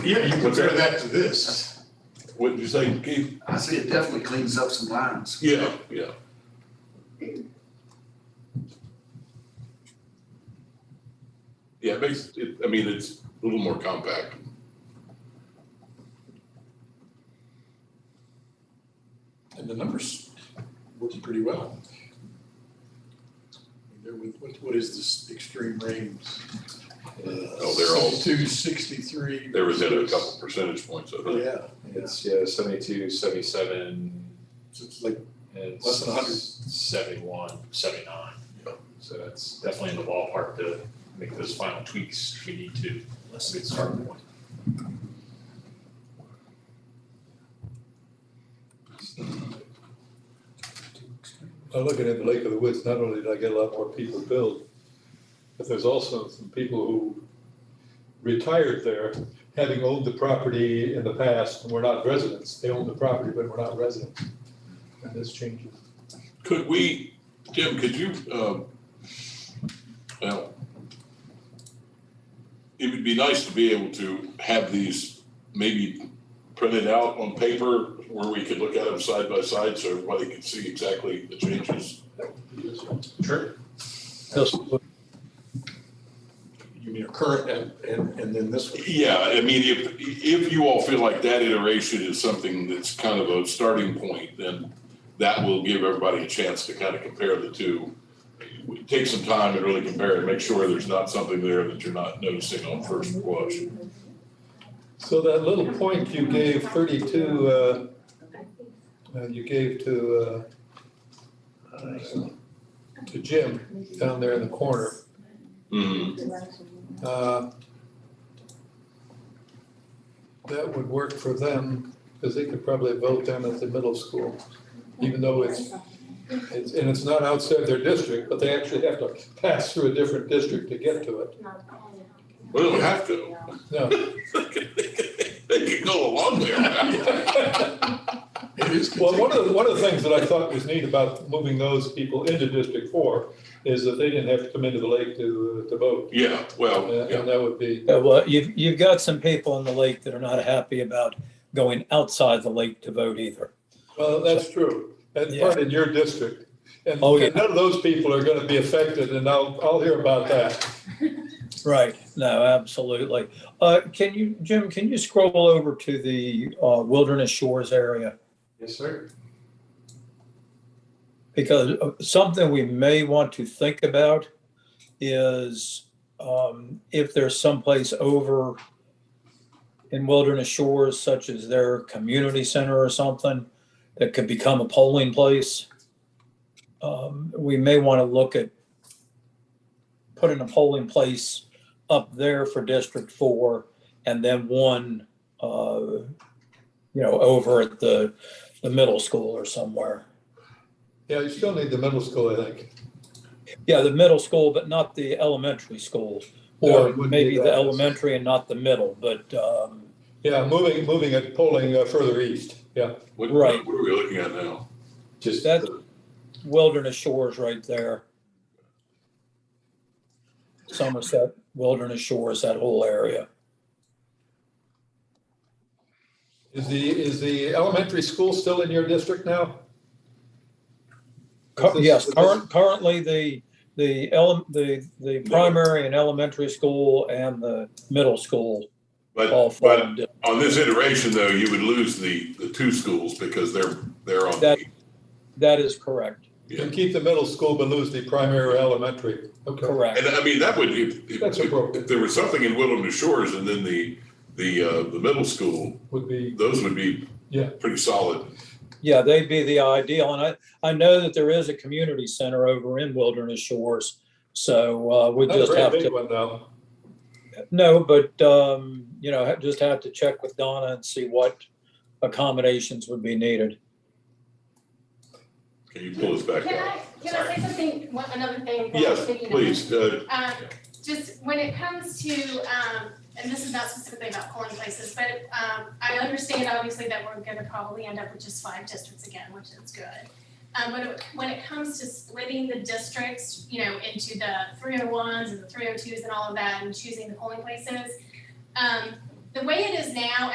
Yeah, you What's that? compare that to this. Wouldn't you say, Keith? I see it definitely cleans up some lines. Yeah, yeah. Yeah, it makes, it, I mean, it's a little more compact. And the numbers working pretty well. There was, what, what is this extreme range? Oh, they're all- Two sixty-three. They were at a couple percentage points of it. Yeah, yeah, It's yeah, 72, 77, So it's like, and Less than 100. 71, 79. Yeah. So that's definitely in the ballpark to make those final tweaks if we need to. That's a good starting point. I'm looking at the Lake of the Woods, not only did I get a lot more people build, but there's also some people who retired there, having owned the property in the past, and were not residents. They owned the property, but were not residents. And this changes. Could we, Jim, could you, um, well, it would be nice to be able to have these maybe printed out on paper where we could look at them side by side so everybody could see exactly the changes. Sure. you mean a current and, and, and then this one? Yeah, I mean, if, if you all feel like that iteration is something that's kind of a starting point, then that will give everybody a chance to kind of compare the two. Take some time and really compare and make sure there's not something there that you're not noticing on first blush. So that little point you gave thirty-two, uh, uh, you gave to, uh, uh, to Jim down there in the corner, Mm-hmm. Mhm. uh, that would work for them, because they could probably vote them at the middle school, even though it's, it's, and it's not outside their district, but they actually have to pass through a different district to get to it. We don't have to. No. They could go along there. It is. Well, one of the, one of the things that I thought was neat about moving those people into District Four is that they didn't have to come into the lake to, uh, to vote. Yeah, Uh, well, yeah, And that would be, Yeah, uh, well, you've, you've got some people in the lake that are not happy about going outside the lake to vote either. well, that's true. That's Yeah. part in your district. And Oh, yeah. and none of those people are gonna be affected and I'll, I'll hear about that. Right. No, absolutely. Uh, can you, Jim, can you scroll over to the, uh, Wilderness Shores area? Yes, sir. Because uh, something we may want to think about is, um, if there's someplace over in Wilderness Shores, such as their community center or something, that could become a polling place. Um, we may want to look at putting a polling place up there for District Four and then one, uh, you know, over at the, the middle school or somewhere. Yeah, you still need the middle school, I think. Yeah, the middle school, but not the elementary school. No, it Or wouldn't be maybe the that. elementary and not the middle, but, um, Yeah, moving, moving it, polling uh, further east, yeah. what, Right. what are we looking at now? Just That- the- Wilderness Shores right there. Somerset, Wilderness Shores, that whole area. Is the, is the elementary school still in your district now? Cur- This- Yes, this- current, currently the, the ele, the, the primary and elementary school and the middle school all But, but formed. on this iteration though, you would lose the, the two schools because they're, they're on. That- That is correct, You keep the middle school but lose the primary or elementary. Okay. correct. And I mean, that would, if, if, That's appropriate. if there was something in Wilderness Shores and then the, the, uh, the middle school, Would be, those would be Yeah. pretty solid. Yeah, they'd be the ideal. And I, I know that there is a community center over in Wilderness Shores. So, uh, we not a just very have big to, one though. no, but, um, you know, ha- just have to check with Donna and see what accommodations would be needed. Can you pull us back Can up? I, can I say something, one, another thing? that I was Yes, thinking of? please, uh, Um, just when it comes to, um, and this is not specifically about corn places, but, um, I understand obviously that we're gonna probably end up with just five districts again, which is good. Um, when it, when it comes to splitting the districts, you know, into the three oh ones and the three oh twos and all of that and choosing the polling places, um, the way it is now,